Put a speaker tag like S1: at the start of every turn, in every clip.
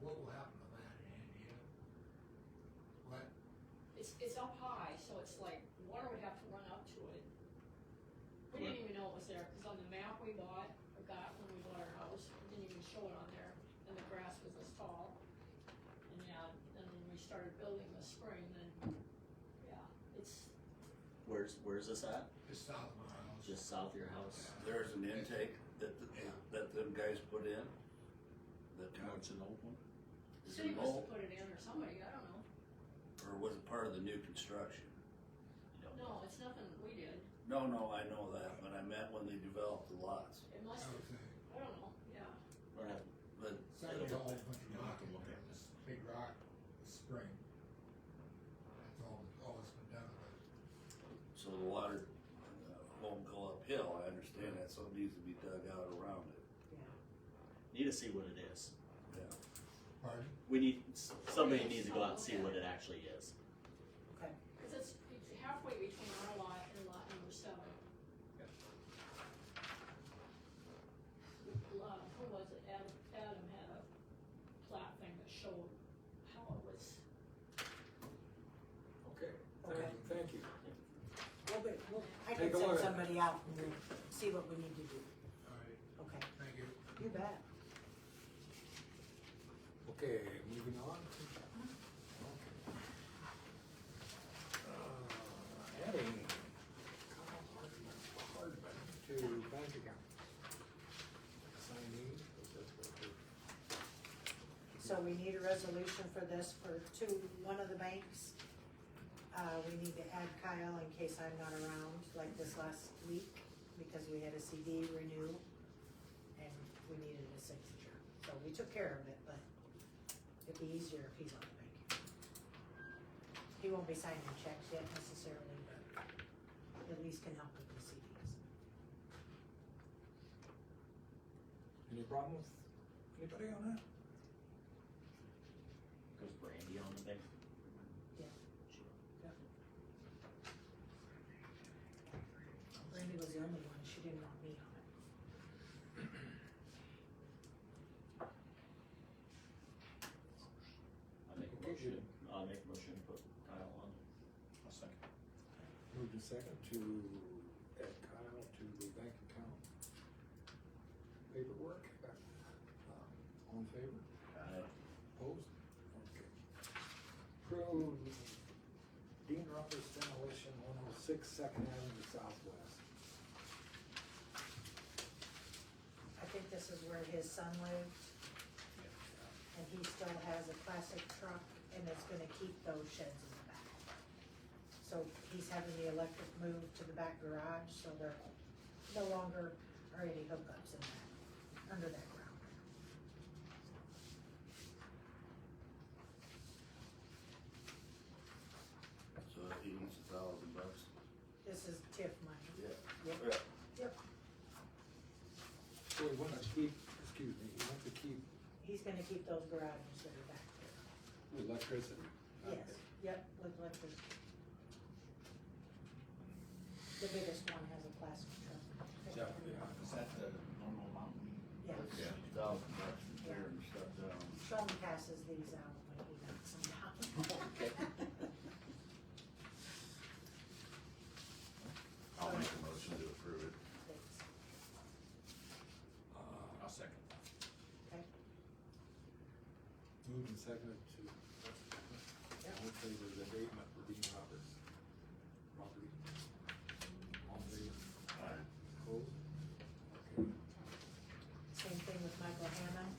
S1: what will happen to that in India? What,
S2: It's, it's up high, so it's like, water would have to run up to it. We didn't even know it was there, cause on the map we bought, or got when we bought our house, it didn't even show it on there, and the grass was this tall. And yeah, and then we started building this spring, and, yeah, it's,
S3: Where's where's this at?
S1: just south of my house?
S3: Just south of your house.
S4: There's an intake that, the-
S1: Yeah.
S4: that them guys put in. That kind
S3: What's an old one?
S4: of-
S2: the
S4: is
S2: city
S4: it
S2: must have
S4: old,
S2: put it in or somebody, I don't know.
S4: or was it part of the new construction?
S2: No, it's nothing we did,
S4: No, no, I know that, but I meant when they developed the lots,
S1: I
S2: it
S4: Oh.
S2: must,
S1: would think.
S2: I don't know, yeah.
S3: Or have-
S4: but
S1: It's not a whole bunch of rock in there, this big rock, this spring. That's all, all that's been done with it.
S4: So the water uh, won't go uphill, I understand that, so it needs to be dug out around it,
S3: need to see what it is.
S4: yeah.
S1: Pardon?
S3: We need somebody needs to go out and see what it actually is.
S2: Cause it's it's halfway between our lot and lot number seven. Lot, who was it, Adam, Adam had a plat thing that showed how it was,
S5: Okay.
S6: Okay, thank, thank you.
S5: Well, but, well, I
S6: Take
S5: can
S6: a
S5: send
S6: look.
S5: somebody out and see what we need to do.
S1: All right,
S5: Okay,
S1: thank you.
S5: you bet.
S6: Okay, moving on. Uh, Adding Hardman to bank account. Signing, is that what we're-
S5: So we need a resolution for this for two, one of the banks. Uh, we need to add Kyle in case I'm not around, like this last week, because we had a CD renew. And we needed a signature, so we took care of it, but it'd be easier if he's on the bank. He won't be signing checks yet necessarily, but at least can help with the CDs.
S6: Any problem with anybody on that?
S3: Goes Brandy on the thing.
S5: Yeah. Randy was the only one, she didn't want me on it.
S3: I make a motion. I make a motion. Put Kyle on.
S7: I'll second.
S6: Move to second to add Kyle to the bank account paperwork. Uh, All in favor?
S4: I-
S6: Opposed? Okay. Approve Dean Roberts demolition one oh six Second Avenue Southwest.
S5: I think this is where his son lived. And he still has a classic truck and it's gonna keep those sheds in the back. So he's having the electric moved to the back garage, so there no longer are any hookups in that, under that ground.
S4: So he needs a thousand bucks.
S5: This is TIF money.
S4: Yeah.
S5: Yep.
S4: Yeah.
S5: Yep,
S6: So we want to keep, excuse me, we want to keep
S5: he's gonna keep those garages that are back there.
S6: electricity.
S5: Yes, yep, with electric. The biggest one has a plastic truck.
S6: Yeah, yeah.
S7: Is that the normal amount?
S5: Yeah.
S4: Yeah, thousand bucks to tear and stuff down.
S5: Sean passes these out when he knocks them down.
S7: I'll make a motion to approve it.
S5: Thanks.
S7: I'll second.
S5: Okay,
S6: Moved and seconded to, all in favor of the abatement for Dean Roberts. Property. All in favor? Opposed? Okay.
S5: same thing with Michael Hammond.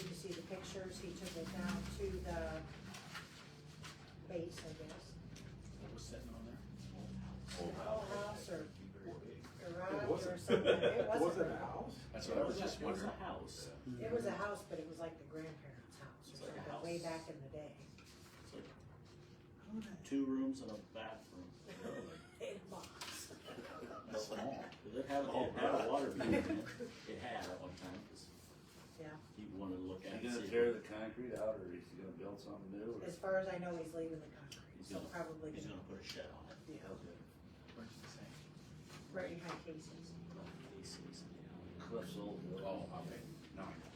S5: You can see the pictures, he took it down to the base, I guess.
S7: What was sitting on there?
S5: Old house or
S6: It
S5: garage
S6: wasn't.
S5: or something, it
S6: Was it
S5: wasn't.
S6: a house?
S7: That's what I was just
S3: It was
S7: wondering.
S3: a house.
S5: It was a house, but it was like the grandparents' house,
S3: It's
S5: or
S3: like a
S5: something, way
S3: house.
S5: back in the day.
S3: It's like two rooms and a bathroom.
S5: In a box.
S3: That's small. Did it have,
S4: Oh,
S3: it had
S4: God.
S3: a water main in it? It had at one time, cause
S5: Yeah,
S3: he wanted to look at it.
S4: Is he
S3: see
S4: gonna
S3: if
S4: tear
S3: it-
S4: the concrete out or is he gonna build something new?
S5: as far as I know, he's leaving the concrete,
S3: He's
S5: so
S3: gonna-
S5: probably
S3: He's
S5: gonna,
S3: gonna put a shed on it.
S5: yeah,
S4: Okay.
S5: right behind Casey's.
S3: He sees it.
S4: Cliff's old.
S7: Oh, okay.
S4: No.